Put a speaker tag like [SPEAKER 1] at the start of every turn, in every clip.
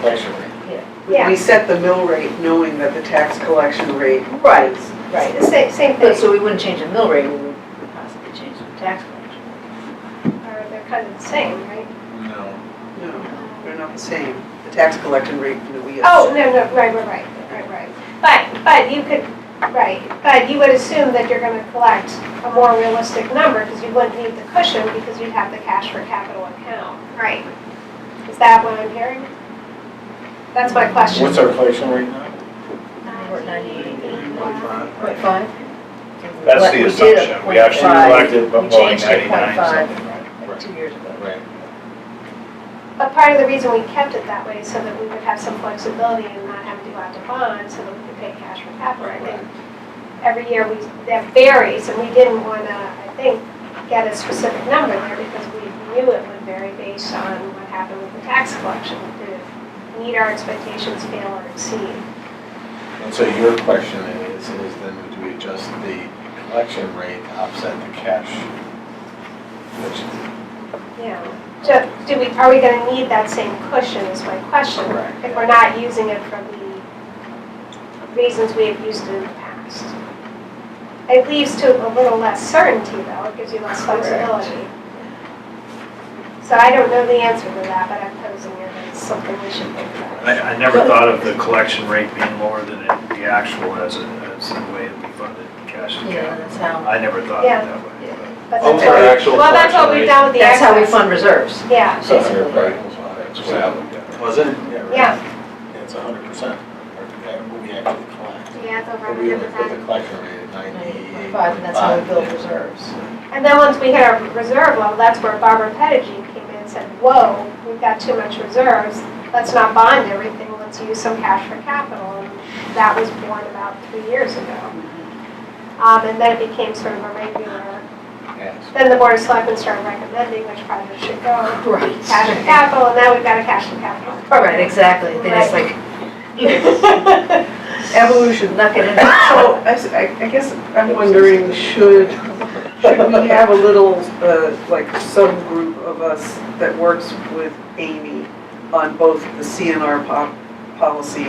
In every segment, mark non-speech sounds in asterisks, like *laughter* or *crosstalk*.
[SPEAKER 1] collection rate.
[SPEAKER 2] Yeah.
[SPEAKER 3] We set the mill rate knowing that the tax collection rate.
[SPEAKER 2] Right, right, the same, same
[SPEAKER 4] But
[SPEAKER 2] thing.
[SPEAKER 4] so we wouldn't change the mill rate, we would possibly change the tax collection.
[SPEAKER 2] Or They're kind of the same, right?
[SPEAKER 1] No.
[SPEAKER 3] No, they're not the same. The tax collection rate that we.
[SPEAKER 2] Oh, no, no, right, right, right, right, right. But, but you could, right, but you would assume that you're gonna collect a more realistic number because you wouldn't need the cushion because you'd have the cash for capital account. Right. Is that what I'm hearing? That's my question.
[SPEAKER 1] What's our collection rate now?
[SPEAKER 4] We're at 98.5.
[SPEAKER 1] Ninety-five.
[SPEAKER 4] Point five?
[SPEAKER 5] That's the assumption, we actually collected
[SPEAKER 4] We
[SPEAKER 5] about
[SPEAKER 4] changed to
[SPEAKER 5] 99
[SPEAKER 4] 0.5.
[SPEAKER 5] something, right?
[SPEAKER 4] Like two years ago.
[SPEAKER 1] Right.
[SPEAKER 2] But part of the reason we kept it that way is so that we would have some flexibility and not have to go out to bond so that we could pay cash for capital. And Every year, we, that varies, and we didn't want to, I think, get a specific number there because we knew it would vary based on what happened with the tax collection. Did it meet our expectations, fail or exceed?
[SPEAKER 1] And so your question is, is then do we adjust the collection rate to offset the cash? Which,
[SPEAKER 2] Yeah. So do we, are we going to need that same cushion is my question?
[SPEAKER 1] Correct.
[SPEAKER 2] If we're not using it for the reasons we have used it in the past. It leaves to a little less certainty though, it gives you less flexibility. So I don't know the answer to that, but I'm posing it as something we should think about.
[SPEAKER 5] I, I never thought of the collection rate being lower than it- the actual as a, as a way that we funded cash to
[SPEAKER 4] Yeah,
[SPEAKER 5] cap.
[SPEAKER 4] that's how,
[SPEAKER 5] I never thought of it
[SPEAKER 2] Yeah.
[SPEAKER 5] that way. but-
[SPEAKER 2] But that's
[SPEAKER 1] Over
[SPEAKER 2] what-
[SPEAKER 1] actual
[SPEAKER 2] Well, that's what
[SPEAKER 1] collection
[SPEAKER 2] we've done with the
[SPEAKER 4] that's
[SPEAKER 2] excess.
[SPEAKER 4] how we fund reserves.
[SPEAKER 2] Yeah,
[SPEAKER 1] so
[SPEAKER 4] Basically.
[SPEAKER 1] hundred percent.
[SPEAKER 5] That's what I looked at.
[SPEAKER 1] Was it? right.
[SPEAKER 2] yeah,
[SPEAKER 1] It's a hundred percent, what we actually collect.
[SPEAKER 2] yeah, it's over
[SPEAKER 1] But we only
[SPEAKER 2] 100%.
[SPEAKER 1] put the collection rate at ninety-eight.
[SPEAKER 4] 0.5, and that's how we build reserves.
[SPEAKER 2] And then once we hit our reserve level, that's where Barbara Pettigee came in and said, whoa, we've got too much reserves. Let's not bond everything, let's use some cash for capital. And that was born about three years ago. Um, and then it became sort of a regular,
[SPEAKER 1] Yes.
[SPEAKER 2] then the Board of Selectmen started recommending which projects should go. Cash for
[SPEAKER 4] Right.
[SPEAKER 2] capital, and now we've got a cash for capital.
[SPEAKER 4] Right, exactly, then it's *laughs* like, evolution, knock it in. *laughs*
[SPEAKER 3] So I s- I, I guess I'm wondering, should, should we have a little, uh, like subgroup of us that works with Amy on both the CNR pop, policy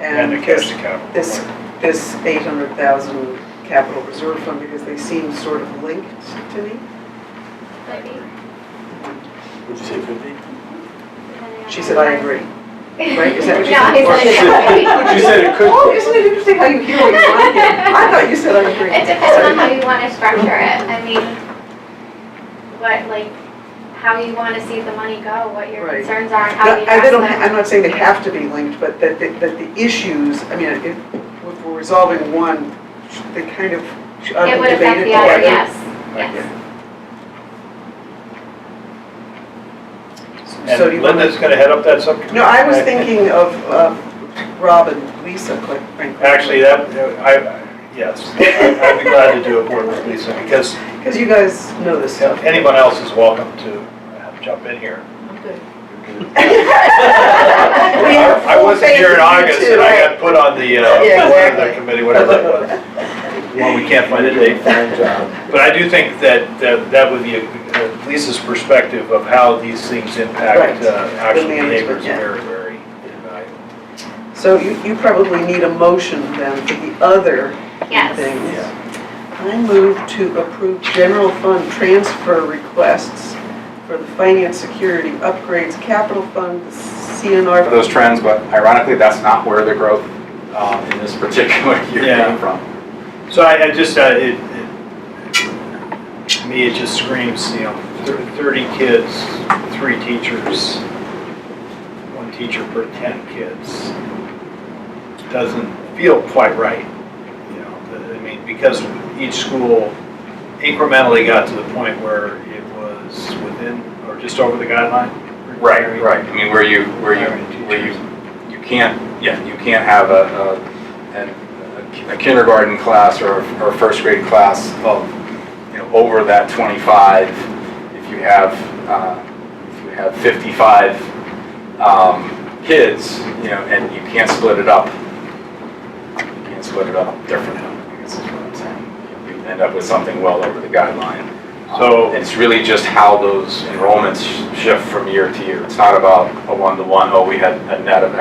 [SPEAKER 5] And the
[SPEAKER 3] and
[SPEAKER 5] cash
[SPEAKER 3] this,
[SPEAKER 5] to cap.
[SPEAKER 3] this, this eight hundred thousand capital reserve fund, because they seem sort of linked to me?
[SPEAKER 1] Would you *laughs* say fifty?
[SPEAKER 3] She said, I agree. Right, is
[SPEAKER 2] *laughs*
[SPEAKER 3] that what you
[SPEAKER 1] But you
[SPEAKER 3] said? *laughs*
[SPEAKER 2] No, he said-
[SPEAKER 1] said it could.
[SPEAKER 3] Oh, isn't it interesting how you hear what *laughs* you want to hear? I thought you said I agree.
[SPEAKER 6] It depends on how you want to structure it. I mean, what, like, how you want to see the money go, what your
[SPEAKER 3] Right.
[SPEAKER 6] concerns are, and how you
[SPEAKER 3] No, I-
[SPEAKER 6] address
[SPEAKER 3] they don't,
[SPEAKER 6] them.
[SPEAKER 3] I'm not saying they have to be linked, but that, that that the issues, I mean, if, if we're resolving one, they kind of should
[SPEAKER 6] It
[SPEAKER 3] be
[SPEAKER 6] would affect
[SPEAKER 3] debated
[SPEAKER 6] the other,
[SPEAKER 3] together.
[SPEAKER 6] yes,
[SPEAKER 5] Like,
[SPEAKER 6] yes.
[SPEAKER 3] So do you
[SPEAKER 5] And
[SPEAKER 3] want
[SPEAKER 5] Linda's
[SPEAKER 3] to?
[SPEAKER 5] gonna head up that subcommittee.
[SPEAKER 3] No, I was thinking of, uh, Rob and Lisa, quite frankly.
[SPEAKER 5] Actually, that, I, yes, I- I'd be glad to do a board with Lisa, because
[SPEAKER 3] Because you guys know this stuff.
[SPEAKER 5] anyone else is welcome to uh, jump in here.
[SPEAKER 4] I'm good.
[SPEAKER 3] We have
[SPEAKER 5] I I
[SPEAKER 3] full
[SPEAKER 5] wasn't
[SPEAKER 3] faith
[SPEAKER 5] here
[SPEAKER 3] you
[SPEAKER 5] in August,
[SPEAKER 3] two,
[SPEAKER 5] and I
[SPEAKER 3] right?
[SPEAKER 5] got put on the,
[SPEAKER 4] Yeah,
[SPEAKER 5] uh,
[SPEAKER 4] exactly.
[SPEAKER 5] the committee, whatever that was.
[SPEAKER 3] *laughs*
[SPEAKER 5] Well, we can't find a date.
[SPEAKER 1] Fine job.
[SPEAKER 5] But I do think that, that that would be a- Lisa's perspective of how these things impact
[SPEAKER 3] Right.
[SPEAKER 5] uh,
[SPEAKER 3] The
[SPEAKER 5] actual
[SPEAKER 3] management,
[SPEAKER 5] neighbors
[SPEAKER 3] yeah.
[SPEAKER 5] very, very invaluable.
[SPEAKER 3] So you, you probably need a motion then for the other
[SPEAKER 6] Yes.
[SPEAKER 3] things. I move to approve general fund transfer requests for the finance security upgrades capital fund, the
[SPEAKER 7] for those
[SPEAKER 3] CNR.
[SPEAKER 7] trends, but ironically, that's not where the growth um, in this particular *laughs* year
[SPEAKER 5] Yeah.
[SPEAKER 7] came from.
[SPEAKER 5] So I, I just, uh, it, it- to me, it just screams, you know, thir- thirty kids, three teachers, one teacher per ten kids. Doesn't feel quite right, you know, the- I mean, because each school incrementally got to the point where it was within, or just over the guideline.
[SPEAKER 7] Right, right. I mean, where you, where you,
[SPEAKER 5] Hiring
[SPEAKER 7] where you, you can't, yeah, you can't have a, a, an- a kindergarten class or, or a first grade class of, you know, over that twenty-five. If you have, uh, if you have fifty-five, um, kids, you know, and you can't split it up. You can't split it up differently, I guess is what I'm saying. You end up with something well over the guideline.
[SPEAKER 5] So-
[SPEAKER 7] Um, It's really just how those enrollments sh- shift from year to year. It's not about a one-to-one, oh, we had a net of